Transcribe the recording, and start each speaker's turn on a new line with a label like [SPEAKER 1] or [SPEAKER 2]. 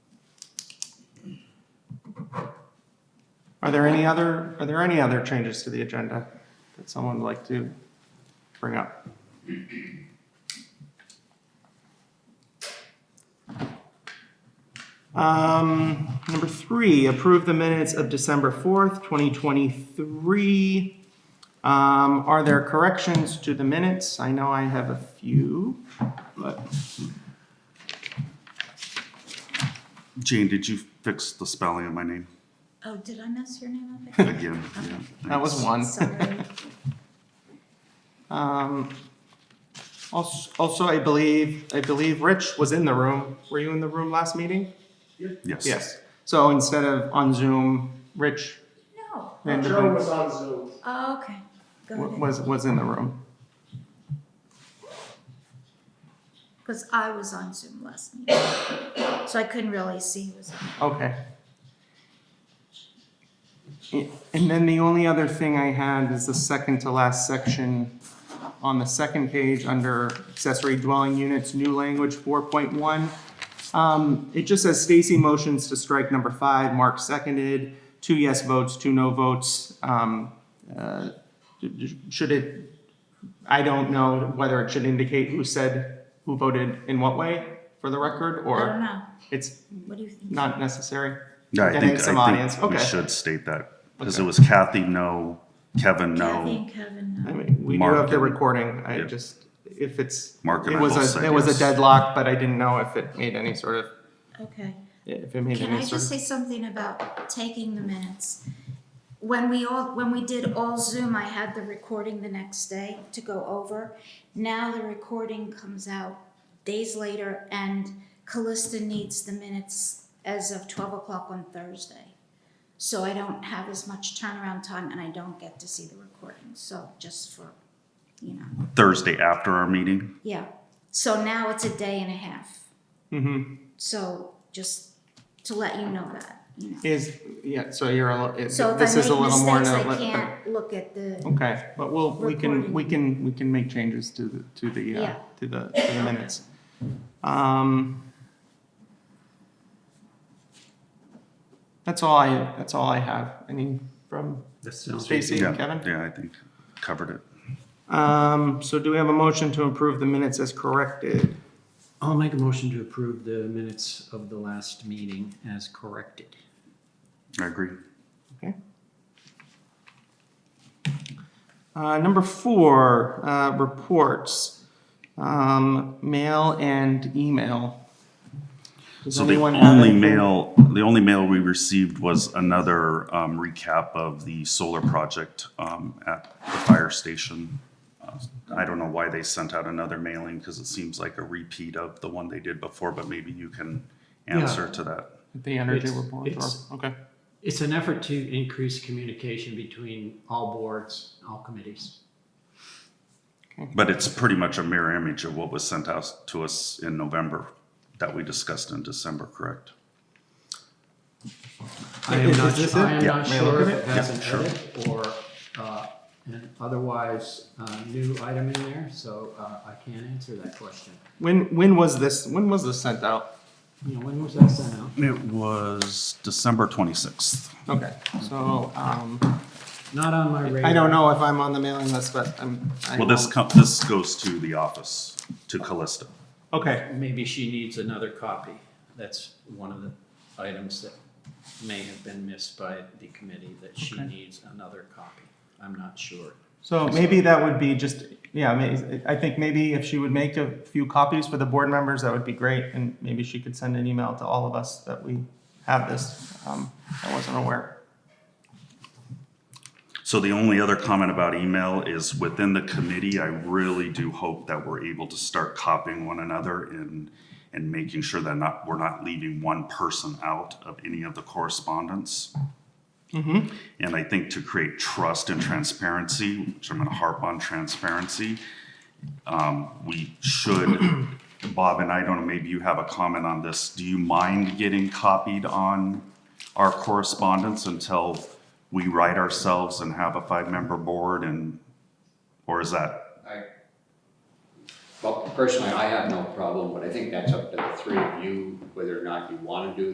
[SPEAKER 1] Are there any other, are there any other changes to the agenda that someone would like to bring up? Um, number three, approve the minutes of December 4th, 2023. Um, are there corrections to the minutes? I know I have a few, but
[SPEAKER 2] Jane, did you fix the spelling of my name
[SPEAKER 3] Oh, did I mess your name up? again?
[SPEAKER 2] again? Yeah,
[SPEAKER 1] that was
[SPEAKER 2] thanks.
[SPEAKER 1] one.
[SPEAKER 3] Sorry.
[SPEAKER 1] Um, also, also, I believe, I believe Rich was in the room. Were you in the room last meeting?
[SPEAKER 2] Yes.
[SPEAKER 1] Yes. So instead of on Zoom, Rich
[SPEAKER 3] No.
[SPEAKER 4] Joe
[SPEAKER 1] Vanderbeek
[SPEAKER 4] was on Zoom.
[SPEAKER 3] Oh, okay. Go
[SPEAKER 1] wa-
[SPEAKER 3] ahead.
[SPEAKER 1] was, was in the room.
[SPEAKER 3] Because I was on Zoom last night. So I couldn't really see who was on.
[SPEAKER 1] Okay. A- And then the only other thing I had is the second to last section on the second page under accessory dwelling units, new language four point one. Um, it just says Stacy motions to strike number five, Mark seconded, two yes votes, two no votes. Um, uh, d- d- should it, I don't know whether it should indicate who said, who voted in what way for the record,
[SPEAKER 3] I don't
[SPEAKER 1] or
[SPEAKER 3] know.
[SPEAKER 1] it's
[SPEAKER 3] What do you think?
[SPEAKER 1] not necessary?
[SPEAKER 2] Yeah, I
[SPEAKER 1] Getting
[SPEAKER 2] think,
[SPEAKER 1] some
[SPEAKER 2] I
[SPEAKER 1] audience,
[SPEAKER 2] think we
[SPEAKER 1] okay.
[SPEAKER 2] should state that, because
[SPEAKER 1] Okay.
[SPEAKER 2] it was Kathy, no, Kevin,
[SPEAKER 3] Kathy
[SPEAKER 2] no.
[SPEAKER 3] and Kevin,
[SPEAKER 1] I
[SPEAKER 3] no.
[SPEAKER 1] mean, we do
[SPEAKER 2] Mark
[SPEAKER 1] have the
[SPEAKER 2] and-
[SPEAKER 1] recording, I
[SPEAKER 2] yeah.
[SPEAKER 1] just, if it's,
[SPEAKER 2] Mark and
[SPEAKER 1] it
[SPEAKER 2] I both
[SPEAKER 1] was a,
[SPEAKER 2] said
[SPEAKER 1] it was a
[SPEAKER 2] yes.
[SPEAKER 1] deadlock, but I didn't know if it made any sort of,
[SPEAKER 3] Okay.
[SPEAKER 1] if it made
[SPEAKER 3] Can I
[SPEAKER 1] any
[SPEAKER 3] just
[SPEAKER 1] sort of.
[SPEAKER 3] say something about taking the minutes? When we all, when we did all Zoom, I had the recording the next day to go over. Now the recording comes out days later and Callista needs the minutes as of twelve o'clock on Thursday. So I don't have as much turnaround time and I don't get to see the recording, so just for, you know,
[SPEAKER 2] Thursday after our meeting,
[SPEAKER 3] yeah. So now it's a day and a half,
[SPEAKER 1] Mhm.
[SPEAKER 3] so just to let you know that, you know.
[SPEAKER 1] Is, yeah, so you're, a li- it-
[SPEAKER 3] So
[SPEAKER 1] this
[SPEAKER 3] if
[SPEAKER 1] is a
[SPEAKER 3] I make
[SPEAKER 1] little more. uh,
[SPEAKER 3] mistakes,
[SPEAKER 1] than a
[SPEAKER 3] I
[SPEAKER 1] li-
[SPEAKER 3] can't look at the,
[SPEAKER 1] Okay, but we'll, we can, we can, we can make changes to the, to the, uh,
[SPEAKER 3] Yeah.
[SPEAKER 1] to the, to the minutes. Um. That's all I, that's all I have, any from Stacy
[SPEAKER 2] yeah,
[SPEAKER 1] and Kevin?
[SPEAKER 2] yeah, I think covered it.
[SPEAKER 1] Um, so do we have a motion to approve the minutes as corrected?
[SPEAKER 5] I'll make a motion to approve the minutes of the last meeting as corrected.
[SPEAKER 2] I agree.
[SPEAKER 1] Okay. Uh, number four, uh, reports, um, mail and email. Does
[SPEAKER 2] So the
[SPEAKER 1] anyone have
[SPEAKER 2] only
[SPEAKER 1] anything?
[SPEAKER 2] mail, the only mail we received was another um, recap of the solar project um, at the fire station. Uh, I don't know why they sent out another mailing, because it seems like a repeat of the one they did before, but maybe you can answer to that.
[SPEAKER 1] The energy
[SPEAKER 5] It's-
[SPEAKER 1] report, or,
[SPEAKER 5] it's-
[SPEAKER 1] okay,
[SPEAKER 5] It's an effort to increase communication between all boards, all committees.
[SPEAKER 2] But it's pretty much a mirror image of what was sent out to us in November that we discussed in December, correct?
[SPEAKER 5] I am
[SPEAKER 1] Is-
[SPEAKER 5] not,
[SPEAKER 1] is this
[SPEAKER 5] I
[SPEAKER 1] it?
[SPEAKER 5] am not
[SPEAKER 1] May I look
[SPEAKER 5] sure
[SPEAKER 1] at
[SPEAKER 5] if it
[SPEAKER 1] it?
[SPEAKER 5] has
[SPEAKER 2] Yeah,
[SPEAKER 5] an
[SPEAKER 2] sure.
[SPEAKER 5] edit or, uh, an otherwise, uh, new item in there, so, uh, I can't answer that question.
[SPEAKER 1] when, when was this, when was this sent out?
[SPEAKER 5] You know, when was that sent out?
[SPEAKER 2] It was December twenty-sixth.
[SPEAKER 1] Okay, so, um,
[SPEAKER 5] Not on my radar.
[SPEAKER 1] I don't know if I'm on the mailing list, but I'm. I
[SPEAKER 2] Well, this
[SPEAKER 1] will-
[SPEAKER 2] com- this goes to the office, to Callista.
[SPEAKER 1] Okay,
[SPEAKER 5] Maybe she needs another copy. That's one of the items that may have been missed by the committee, that she needs another copy. I'm not sure.
[SPEAKER 1] So maybe that would be just, yeah, may- I think maybe if she would make a few copies for the board members, that would be great. And maybe she could send an email to all of us that we have this. Um, I wasn't aware.
[SPEAKER 2] So the only other comment about email is within the committee, I really do hope that we're able to start copying one another and, and making sure that not, we're not leaving one person out of any of the correspondence. And I think to create trust and transparency, which I'm gonna harp on transparency, um, we should, Bob and I don't know, maybe you have a comment on this. Do you mind getting copied on our correspondence until we write ourselves and have a five-member board and, or is that,
[SPEAKER 6] I, well, personally, I have no problem, but I think that's up to the three of you, whether or not you want to do